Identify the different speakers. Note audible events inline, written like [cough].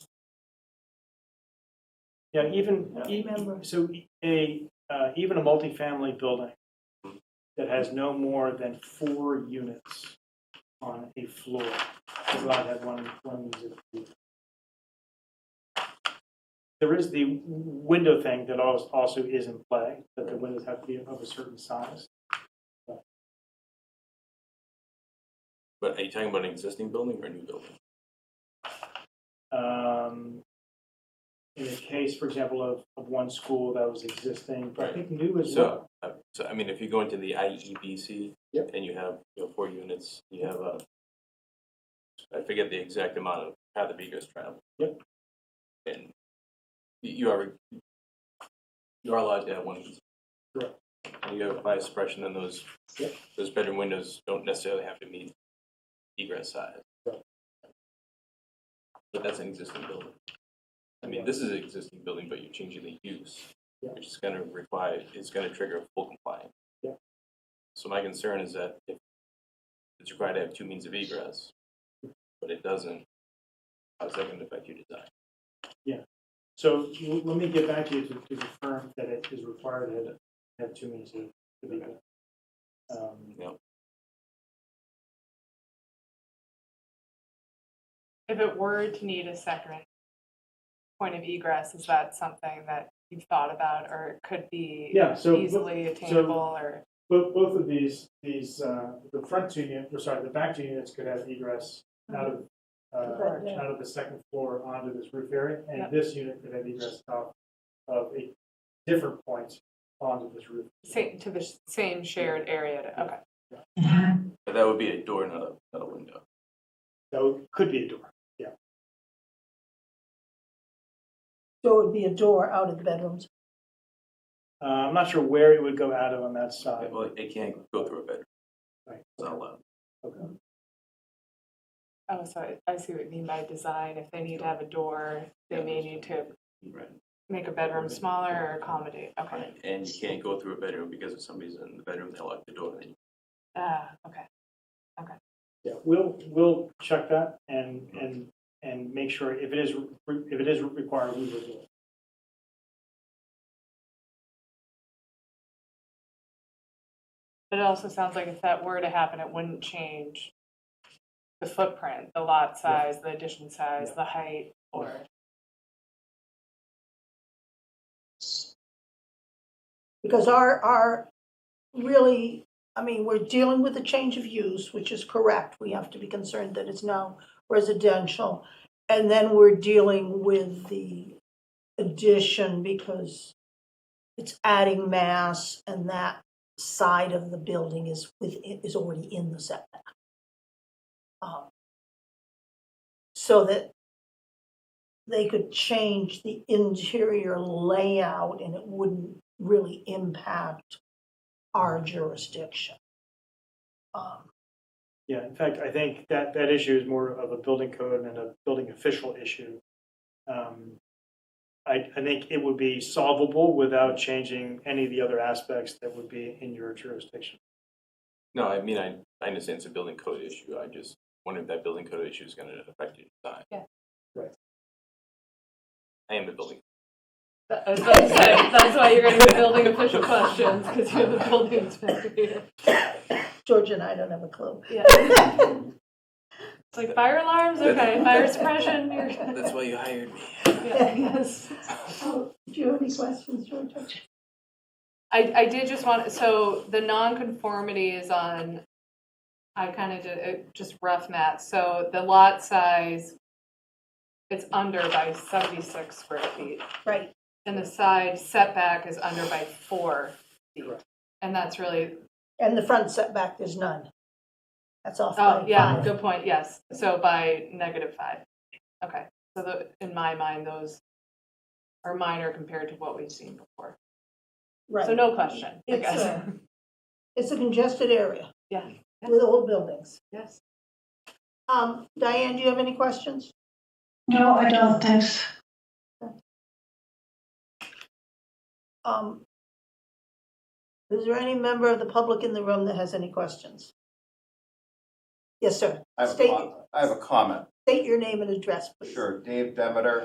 Speaker 1: Yeah, even,
Speaker 2: I don't
Speaker 1: e-
Speaker 2: remember.
Speaker 1: so a, uh, even a multifamily building that has no more than four units on a floor is allowed to have one, one user. There is the window thing that als- also is in play, that the windows have to be of a certain size.
Speaker 3: But are you talking about an existing building or a new building?
Speaker 1: Um, In the case, for example, of, of one school that was existing, but I think new is well.
Speaker 3: So, uh, so I mean, if you go into the IEBC
Speaker 4: Yep.
Speaker 3: and you have, you know, four units, you have a, I forget the exact amount of how the vehicles travel.
Speaker 1: Yep.
Speaker 3: And you- you are, you are allowed to have one.
Speaker 1: Correct.
Speaker 3: And you have a fire suppression and those,
Speaker 1: Yep.
Speaker 3: those bedroom windows don't necessarily have to meet egress size.
Speaker 1: Right.
Speaker 3: But that's an existing building. I mean, this is an existing building, but you're changing the use which is gonna require, it's gonna trigger full compliance.
Speaker 1: Yeah.
Speaker 3: So my concern is that if it's required to have two means of egress, but it doesn't, how's that gonna affect your design?
Speaker 1: So l- let me get back to you to to confirm that it is required that it have two means to to be good. Um,
Speaker 3: Yep.
Speaker 5: If it were to need a second point of egress, is that something that you've thought about or it could be
Speaker 1: Yeah, so bo-
Speaker 5: easily attainable or?
Speaker 1: both, both of these, these, uh, the front two units, or sorry, the back two units could have egress out of,
Speaker 2: Correct,
Speaker 1: uh,
Speaker 2: yeah.
Speaker 1: out of the second floor onto this roof area,
Speaker 5: Yeah.
Speaker 1: and this unit could have egress out of a different point onto this roof.
Speaker 5: Same, to the sh- same shared area, to- okay.
Speaker 3: But that would be a door, not a, not a window.
Speaker 1: That would- could be a door.
Speaker 2: So it would be a door out of the bedrooms.
Speaker 1: Uh, I'm not sure where it would go out of on that
Speaker 3: Right,
Speaker 1: side.
Speaker 3: Well, it can't go through a bedroom,
Speaker 1: Right.
Speaker 3: it's not allowed.
Speaker 1: Okay.
Speaker 5: Oh, so I- I see what you mean by design. If they need to have a door, they may need to
Speaker 3: Right.
Speaker 5: make a bedroom smaller or accommodate, okay.
Speaker 3: Right, and you can't go through a bedroom because if somebody's in the bedroom, they lock the door, then
Speaker 5: Ah, okay.
Speaker 1: Yeah, we'll, we'll check that and, and, and make sure if it is, re- if it is required, we will do it.
Speaker 5: But it also sounds like if that were to happen, it wouldn't change the footprint, the lot size, the addition size,
Speaker 1: Yeah.
Speaker 5: the height, or.
Speaker 2: Because our, our, really, I mean, we're dealing with a change of use, which is correct. We have to be concerned that it's now residential. And then we're dealing with the addition because it's adding mass and that side of the building is within, is already in the setback. Um, So that they could change the interior layout and it wouldn't really impact our jurisdiction. Um,
Speaker 1: Yeah, in fact, I think that, that issue is more of a building code and a building official issue. Um, I, I think it would be solvable without changing any of the other aspects that would be in your jurisdiction.
Speaker 3: No, I mean, I, I understand it's a building code issue, I just wonder if that building code issue is gonna affect your design.
Speaker 5: Yeah.
Speaker 1: Right.
Speaker 3: I am the building.
Speaker 5: That- I was about to say, That's why you're going to be building official questions, because you're the building inspector here.
Speaker 2: Georgia and I don't have a clue.
Speaker 5: Yeah. It's like fire alarms, okay, fire suppression, you're.
Speaker 2: [laughs]
Speaker 3: That's why you hired me.
Speaker 5: Yeah, yes.
Speaker 2: Oh, Do you have any questions, Georgia?
Speaker 5: I, I did just want, so the nonconformity is on, I kind of did, it- just rough math, so the lot size, it's under by seventy-six square feet.
Speaker 2: Right,
Speaker 5: And the side setback is under by four feet.
Speaker 1: Correct.
Speaker 5: And that's really,
Speaker 2: and the front setback, there's none. That's off
Speaker 5: oh,
Speaker 2: by
Speaker 5: yeah,
Speaker 2: five.
Speaker 5: good point, yes. So by negative five. Okay, so the, in my mind, those are minor compared to what we've seen before. So
Speaker 2: Right,
Speaker 5: no question, I
Speaker 2: It's,
Speaker 5: guess. [laughs]
Speaker 2: uh, it's a congested area.
Speaker 5: Yeah.
Speaker 2: With old buildings.
Speaker 5: Yes.
Speaker 2: Um, Diane, do you have any questions?
Speaker 6: No, I don't, thanks.
Speaker 2: Um, is there any member of the public in the room that has any questions? Yes, sir.
Speaker 7: I have a
Speaker 2: State-
Speaker 7: com- I have a comment,
Speaker 2: State your name and address, please.
Speaker 7: sure. Dave Demeter,